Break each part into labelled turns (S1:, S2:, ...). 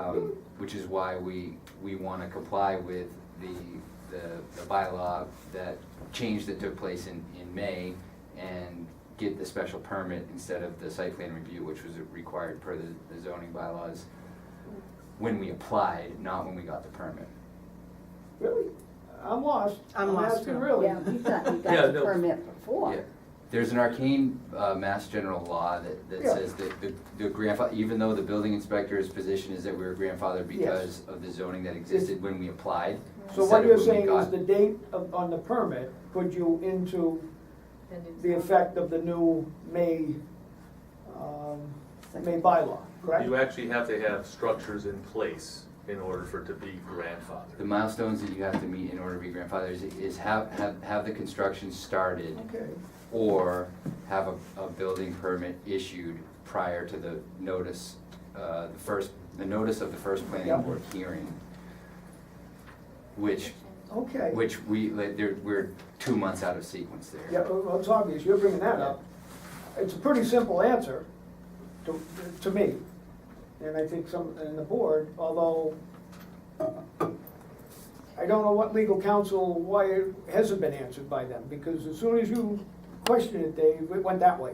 S1: um, which is why we, we want to comply with the, the, the bylaw that change that took place in, in May and get the special permit instead of the site plan review, which was required per the the zoning bylaws when we applied, not when we got the permit.
S2: Really? I'm lost.
S3: I'm lost
S2: asking
S3: too.
S2: Really?
S4: Yeah, we thought we
S5: Yeah,
S4: got the
S5: no.
S4: permit
S1: Yeah.
S4: before.
S1: There's an arcane uh, mass general law that, that
S2: Yeah.
S1: says that the, the grandfather, even though the building inspector's position is that we were grandfathered because of the zoning that existed when we applied.
S2: So
S1: instead
S2: what
S1: of
S2: you're
S1: when we
S2: saying is
S1: got-
S2: the date of, on the permit put you into
S3: And it's-
S2: the effect of the new May, um, May bylaw, correct?
S5: You actually have to have structures in place in order for it to be
S1: The
S5: grandfathered.
S1: milestones that you have to meet in order to be grandfathered is, is have, have, have the construction started
S2: Okay,
S1: or have a, a building permit issued prior to the notice, uh, the first, the notice of the first
S2: Yeah.
S1: planning board hearing. Which
S2: okay.
S1: Which we, like, there, we're two months out of sequence there.
S2: Yeah, uh, well, it's obvious, you're bringing that up. It's a pretty simple answer to, to me, and I think some, and the board, although I don't know what legal counsel, why it hasn't been answered by them, because as soon as you questioned it, they, it went that way.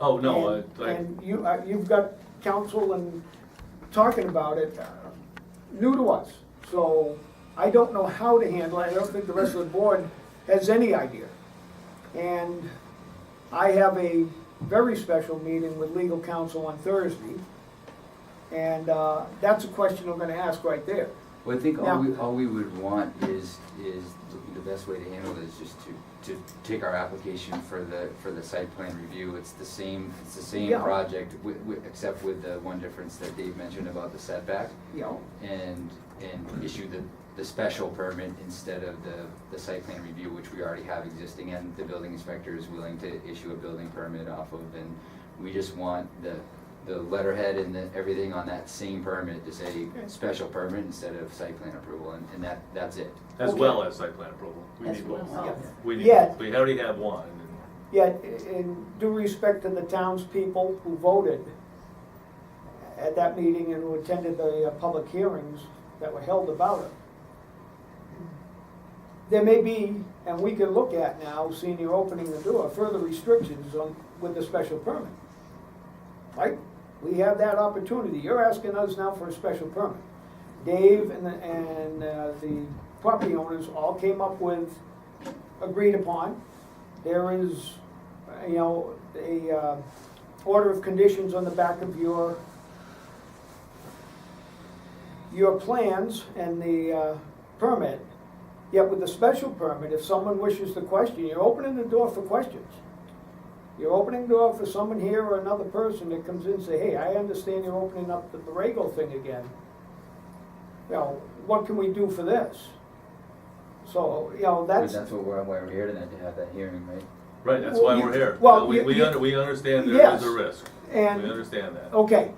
S5: Oh, no, uh,
S2: And-
S5: like,
S2: And you, uh, you've got counsel and talking about it, uh, new to us. So I don't know how to handle it. I don't think the rest of the board has any idea. And I have a very special meeting with legal counsel on Thursday. And uh, that's a question I'm gonna ask right there.
S1: Well, I think all
S2: Now-
S1: we, all we would want is, is, the best way to handle it is just to, to take our application for the, for the site plan review. It's the same, it's the same
S2: Yeah.
S1: project, wi- wi- except with the one difference that Dave mentioned about the setback.
S2: You know,
S1: And, and issue the, the special permit instead of the, the site plan review, which we already have existing. And the building inspector is willing to issue a building permit off of. And we just want the, the letterhead and the, everything on that same permit to say special permit instead of site plan approval. And, and that, that's it.
S5: as well as site plan approval. We
S4: As
S5: need both.
S4: well as.
S5: We need,
S2: Yeah.
S5: we already have one. and-
S2: Yet, in due respect to the townspeople who voted at that meeting and who attended the uh, public hearings that were held about it, there may be, and we can look at now, seeing you're opening the door, further restrictions on, with the special permit. Right? We have that opportunity. You're asking us now for a special permit. Dave and, the- and uh, the property owners all came up with, agreed upon. There is, uh, you know, a uh, order of conditions on the back of your, your plans and the uh, permit. Yet with the special permit, if someone wishes to question, you're opening the door for questions. You're opening the door for someone here or another person that comes in and say, hey, I understand you're opening up the Borrego thing again. You know, what can we do for this? So, you know, that's.
S1: That's what we're, why we're here tonight, to have that hearing, right?
S5: Right, that's why
S2: Well,
S5: we're
S2: you-
S5: here.
S2: well,
S5: We,
S2: you-
S5: we,
S2: you-
S5: under- we understand there
S2: Yes.
S5: is a risk. We
S2: And- oh.
S5: understand that.
S2: Okay,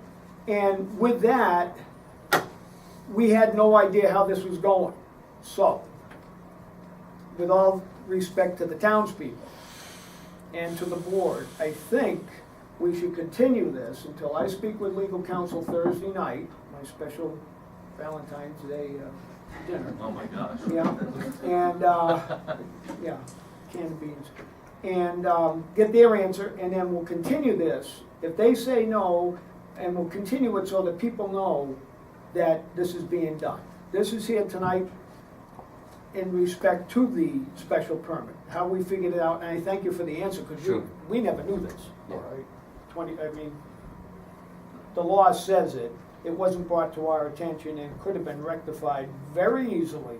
S2: and with that, we had no idea how this was going. So, with all respect to the townspeople and to the board, I think we should continue this until I speak with legal counsel Thursday night, my special Valentine's Day uh, dinner.
S5: Oh, my gosh.
S2: Yeah, and, uh, yeah, can of beans. And um, get their answer, and then we'll continue this. If they say no, and we'll continue it so that people know that this is being done. This is here tonight in respect to the special permit, how we figured it out, and I thank you for the answer, because
S1: Sure.
S2: you, we never knew this.
S1: Yeah.
S2: Alright, Twenty, I mean, the law says it, it wasn't brought to our attention and could have been rectified very easily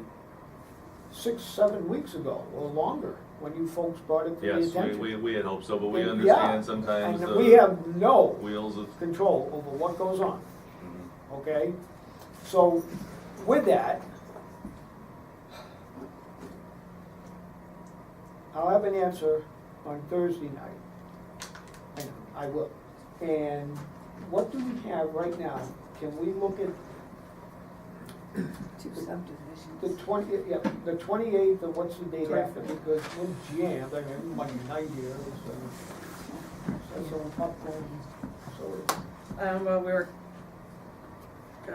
S2: six, seven weeks ago or longer, when you folks brought it to the
S5: Yes, we,
S2: attention.
S5: we, uh, we had hoped so, but we
S2: And, yeah,
S5: understand sometimes
S2: And we
S5: the
S2: have no
S5: wheels of. mm,
S2: control over what goes on, okay? So with that, I'll have an answer on Thursday night. I know, I will. And what do we have right now? Can we look at
S4: Two
S2: The
S4: subdivisions.
S2: twenty, yeah, the twenty-eighth, or what's the date
S4: Right.
S2: after, because we're jammed, I mean, Monday night here, so. So, so popcorn, so,
S3: Um, well, we were